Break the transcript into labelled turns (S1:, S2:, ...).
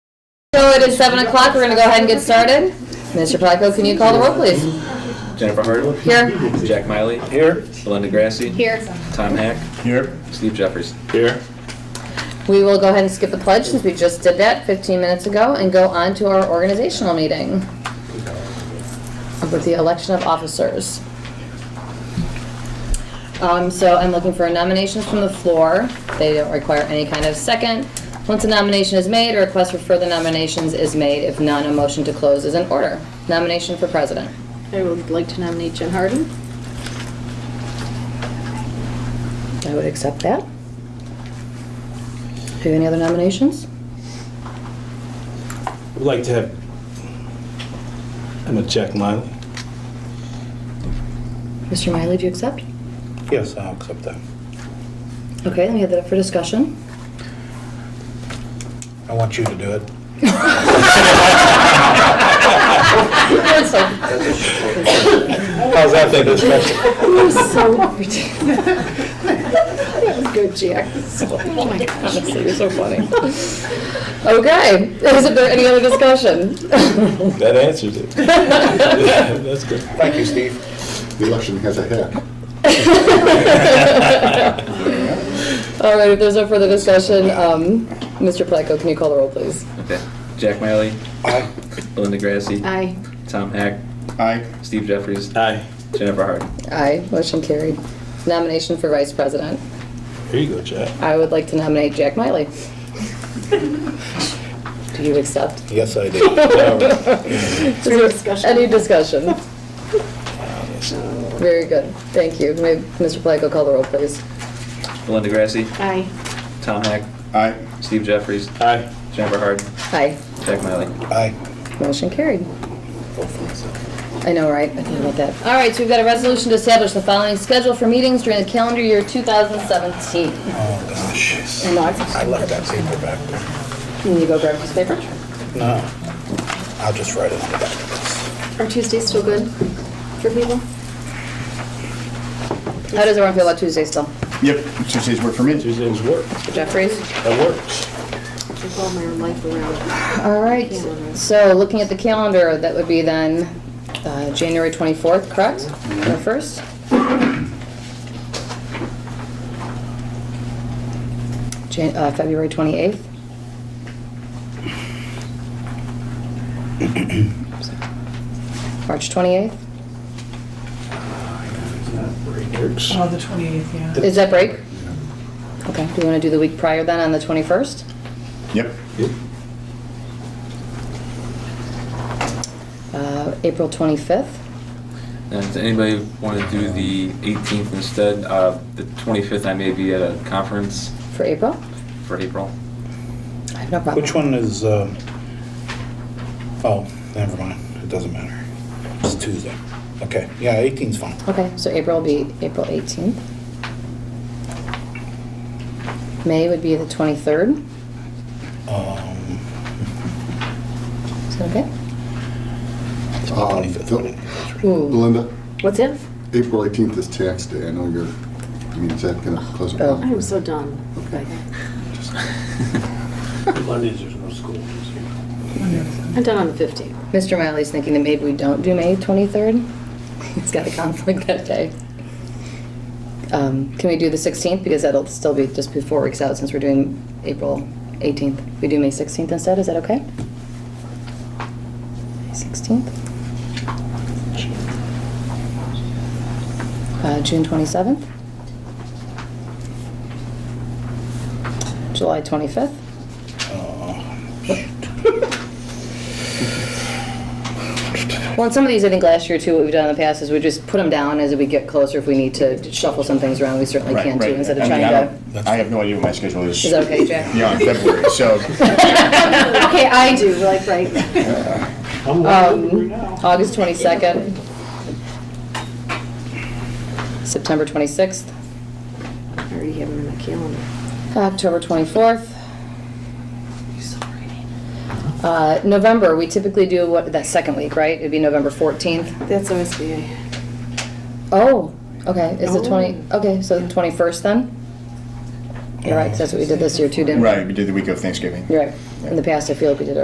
S1: So it is seven o'clock, we're gonna go ahead and get started. Mr. Placco, can you call the roll, please?
S2: Jennifer Hardwick.
S1: Here.
S2: Jack Miley. Here. Belinda Grassi.
S1: Here.
S2: Tom Hack.
S3: Here.
S2: Steve Jeffers.
S3: Here.
S1: We will go ahead and skip the pledge, since we just did that fifteen minutes ago, and go on to our organizational meeting with the election of officers. Um, so I'm looking for nominations from the floor. They don't require any kind of second. Once a nomination is made, a request for further nominations is made. If none, a motion to close is in order. Nomination for president.
S4: I would like to nominate Jen Harden.
S1: I would accept that. Do you have any other nominations?
S3: Would like to have, I'm a Jack Miley.
S1: Mr. Miley, do you accept?
S3: Yes, I'll accept that.
S1: Okay, then we have that up for discussion.
S3: I want you to do it. How's that for discussion?
S4: So That was good, Jack. Oh my gosh.
S1: You're so funny. Okay, is there any other discussion?
S3: That answers it. That's good.
S5: Thank you, Steve. The election has a head.
S1: All right, if there's no further discussion, um, Mr. Placco, can you call the roll, please?
S2: Okay. Jack Miley.
S5: Aye.
S2: Belinda Grassi.
S4: Aye.
S2: Tom Hack.
S5: Aye.
S2: Steve Jeffers.
S3: Aye.
S2: Jennifer Hardwick.
S1: Aye, motion carried. Nomination for vice president.
S3: Here you go, Jack.
S1: I would like to nominate Jack Miley. Do you accept?
S3: Yes, I do.
S1: Is there
S4: discussion.
S1: Any discussion? Very good, thank you. May Mr. Placo call the roll, please?
S2: Belinda Grassi.
S4: Aye.
S2: Tom Hack.
S5: Aye.
S2: Steve Jeffries.
S3: Aye.
S2: Jennifer Hardwick.
S1: Aye,
S2: Jack Miley.
S3: Aye.
S1: motion carried. I know, right? I think about that. All right, so we've got a resolution to establish the following schedule for meetings during the calendar year 2017.
S3: Oh, gosh.
S1: And I,
S3: left that paper back there.
S1: can you go grab this paper?
S3: No. I'll just write it on the back of this.
S4: Are Tuesdays still good for people?
S1: How does everyone feel about Tuesday still?
S5: Yep, Tuesdays work for me.
S3: Tuesdays work.
S1: Mr. Jeffries?
S3: That works.
S4: I follow my life around.
S1: All right,
S4: Calendar.
S1: so looking at the calendar, that would be then uh, January 24th, correct? Or 1st? Jan- uh, February 28th? March 28th?
S3: Works.
S6: Oh, the 28th, yeah.
S1: Is that break? Okay, do you want to do the week prior then, on the 21st?
S5: Yep.
S1: Uh, April 25th?
S2: And does anybody want to do the 18th instead? Uh, the 25th, I may be at a conference
S1: For April?
S2: for April.
S1: I have no problem.
S3: Which one is, um, oh, never mind, it doesn't matter. It's Tuesday. Okay, yeah, 18's fine.
S1: Okay, so April will be April 18th. May would be the 23rd.
S3: Um,
S1: Is that okay?
S3: it's the
S5: Um,
S3: 25th,
S5: Phil?
S3: wedding anniversary.
S1: Ooh.
S5: Belinda,
S4: What's that?
S5: April 18th is tax day. I know you're, I mean, is that going to close?
S1: Oh.
S4: I am so done by that.
S7: Mondays, there's no school.
S4: I'm done on the 15th.
S1: Mr. Miley's thinking that maybe we don't do May 23rd. He's got a conflict that day. Um, Can we do the 16th? Because that'll still be just be four weeks out since we're doing April 18th. We do May 16th instead, is that okay? May 16th? Uh, June 27th? July 25th?
S3: uh,
S1: Well, and some of these, I think last year too, what we've done in the past is we just put them down as we get closer. If we need to shuffle some things around, we certainly
S8: Right,
S1: can too,
S8: right.
S1: instead of
S8: I mean,
S1: trying
S8: I
S1: to.
S8: don't- I have no idea what my schedule is.
S1: Is that okay, Jack?
S8: Beyond February, so
S4: Okay, I do, like, right.
S7: I'm
S1: Um,
S7: wondering now.
S1: August 22nd. September 26th.
S4: I already have them in my calendar.
S1: October 24th. Uh, November, we typically do what, that second week, right? It'd be November 14th.
S4: That's OSBA.
S1: Oh, okay, is it 20, okay, so the 21st then? You're right, 'cause that's what we did this year too, didn't we?
S8: right, we did the week of Thanksgiving.
S1: You're right. In the past, I feel like we did it